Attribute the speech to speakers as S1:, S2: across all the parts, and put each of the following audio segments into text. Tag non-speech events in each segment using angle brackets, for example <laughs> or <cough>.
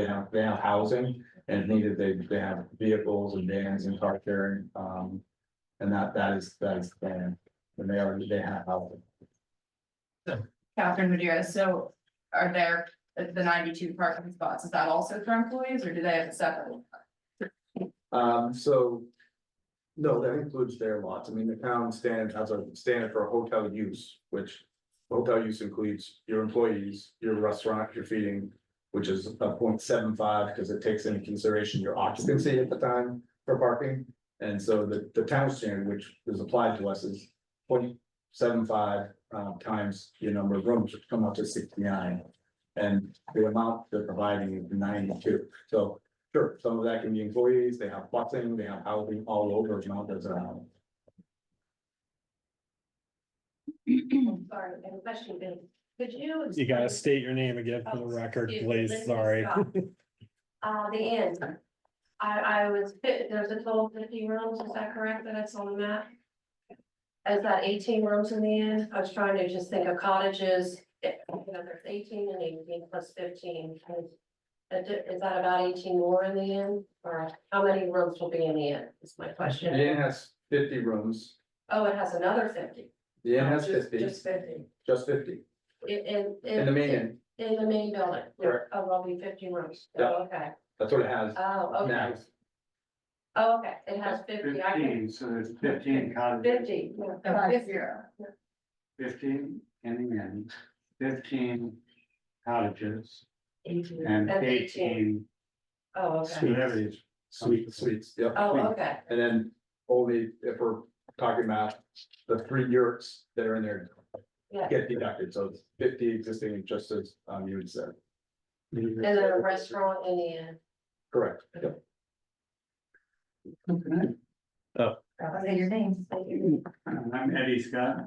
S1: They have, they have housing and needed, they, they have vehicles and vans and car sharing, um. And that, that is, that is, the plan. and they already, they have housing.
S2: Catherine Madeira, so are there uh, the ninety-two parking spots, is that also for employees or do they have a separate? one?
S1: Um, so. No, that includes their lots. I mean, the town stands as a standard for hotel use, which. Hotel use includes your employees, your restaurant, your feeding, which is a point seven five, because it takes into consideration your occupancy at the time for parking. And so the, the town standard, which is applied to us, is point seven five, uh, times your number of rooms, which come up to sixty-nine. And the amount they're providing is ninety-two, so Sure, some of that can be employees, they have boxing, they have housing all over, Mount Desert Island.
S3: Sorry, I have a question, Bill. Could you? Oh,
S4: You gotta state your name again for the record,
S3: Excuse me,
S4: please,
S3: Linda
S4: sorry. <laughs>
S3: Scott. Uh, the end. I, I was, there's a total of fifty rooms, is that correct, that it's on the map? Is that eighteen rooms in the end? I was trying to just think of cottages, if, you know, there's eighteen and eighteen plus fifteen. and that di- Is that about eighteen more in the end, or how many rooms will be in the end, is my
S1: The
S3: question?
S1: inn has fifty rooms,
S3: Oh, it has another fifty.
S1: the inn has
S3: Just-
S1: fifty,
S3: Just fifty,
S1: just fifty,
S3: in, in.
S1: in the main inn,
S3: In the main building?
S1: Correct.
S3: Oh, there'll be fifteen rooms,
S1: Yeah.
S3: oh, okay,
S1: that's what it has
S3: oh, okay,
S1: now.
S3: oh, okay, it has fifty, I can,
S5: so there's fifteen cottages,
S3: fifty.
S2: Five zero.
S5: fifteen in the end, fifteen cottages
S3: Eighteen.
S5: and
S3: And
S5: eighteen.
S3: Oh, okay,
S5: whatever it is.
S1: Suite, suites, yep.
S3: oh, okay,
S1: And then only if we're talking about the three yurts that are in there
S3: yeah,
S1: get deducted, so it's fifty existing, just as um you had said,
S3: and then a restaurant in the end.
S1: correct, yep.
S2: Say your names.
S5: I'm Eddie Scott.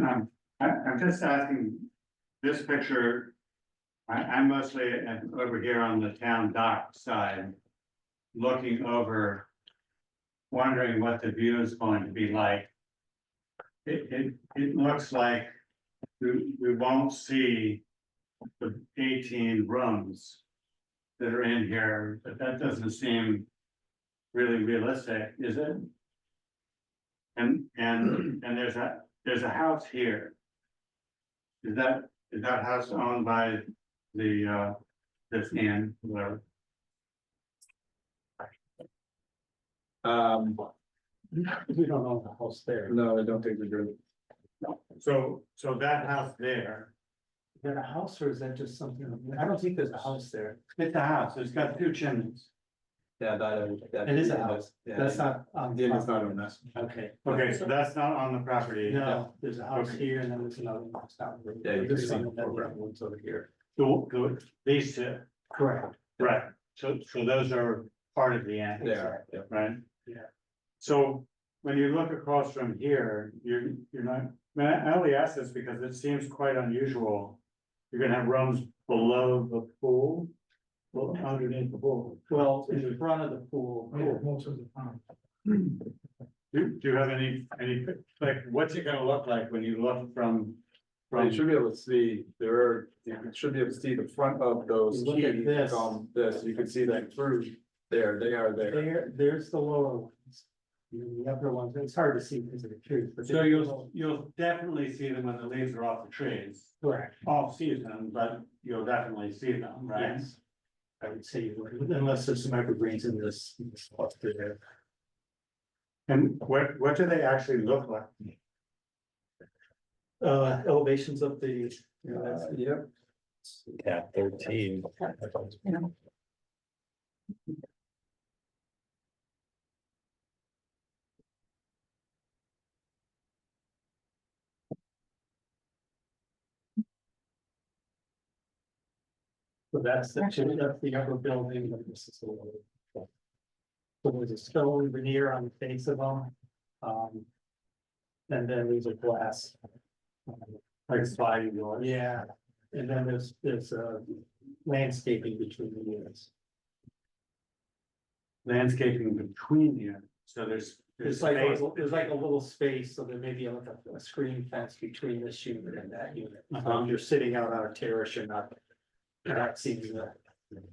S5: Um, I, I'm just asking, this picture, I, I'm mostly am over here on the town dock side, looking over, wondering what the view is going to be like. It, it, it looks like we, we won't see the eighteen rooms that are in here, but that doesn't seem really realistic, is it? And, and, and there's a, there's a house here. Is that, is that house owned by the, uh, this man, whatever?
S1: Um,
S4: <laughs> We don't know the house there.
S1: no, I don't think we do,
S5: So, so that house there,
S4: Is that a house or is that just something? I don't think there's a house there.
S5: it's a house, it's got two chimneys.
S1: yeah, that, that.
S4: It is a house.
S1: Yeah.
S4: That's not on.
S1: The inn is not on this.
S4: Okay.
S5: Okay, so that's not on the property.
S4: No, there's a house
S5: Okay.
S4: here and then there's another one. that's not really-
S1: Yeah, you can
S4: There's
S1: see
S4: something
S1: the
S4: that-
S1: program ones over here.
S5: The, the, these two,
S4: Correct.
S5: right, so, so those are part of the annex.
S1: There, yeah.
S5: right?
S4: Yeah.
S5: So when you look across from here, you're, you're not, I mean, I only ask this because it seems quite unusual. You're gonna have rooms below the pool, well, underneath the pool.
S4: Well, in front of the pool.
S5: Yeah,
S4: Most of the time.
S5: Do, do you have any, any, like, what's it gonna look like when you look from?
S1: Well, you
S5: From,
S1: should be able to see, there are, you should be able to see the front of those
S4: Look at
S1: keys
S4: this.
S1: on this, you can see that through there, they are there.
S4: There, there's the lower ones. The upper ones, it's hard to see because of the trees, but.
S5: so you'll, you'll definitely see them when the leaves are off the trees,
S4: Correct.
S5: off season, but you'll definitely see them, right?
S4: Yes. I would say, you would, unless there's some evergreens in this, in this lot there.
S5: And what, what do they actually look like?
S4: Uh, elevations of the, you know, that's,
S1: Uh, Yep,
S6: Yeah, thirteen.
S4: so that's the, chimney, that's the upper building, and this is the lower. So there's a stone veneer on the face of them, um. And then there's a glass. um,
S5: Like sliding doors?
S4: Yeah, and then there's, there's uh landscaping between the units.
S5: landscaping between you, so there's.
S4: It's like, a
S5: space.
S4: little- there's like a little space, so there may be like a, a screen fence
S5: Uh-huh.
S4: between this unit and that unit. Um, you're sitting out on a terrace, you're not. You're not seeing the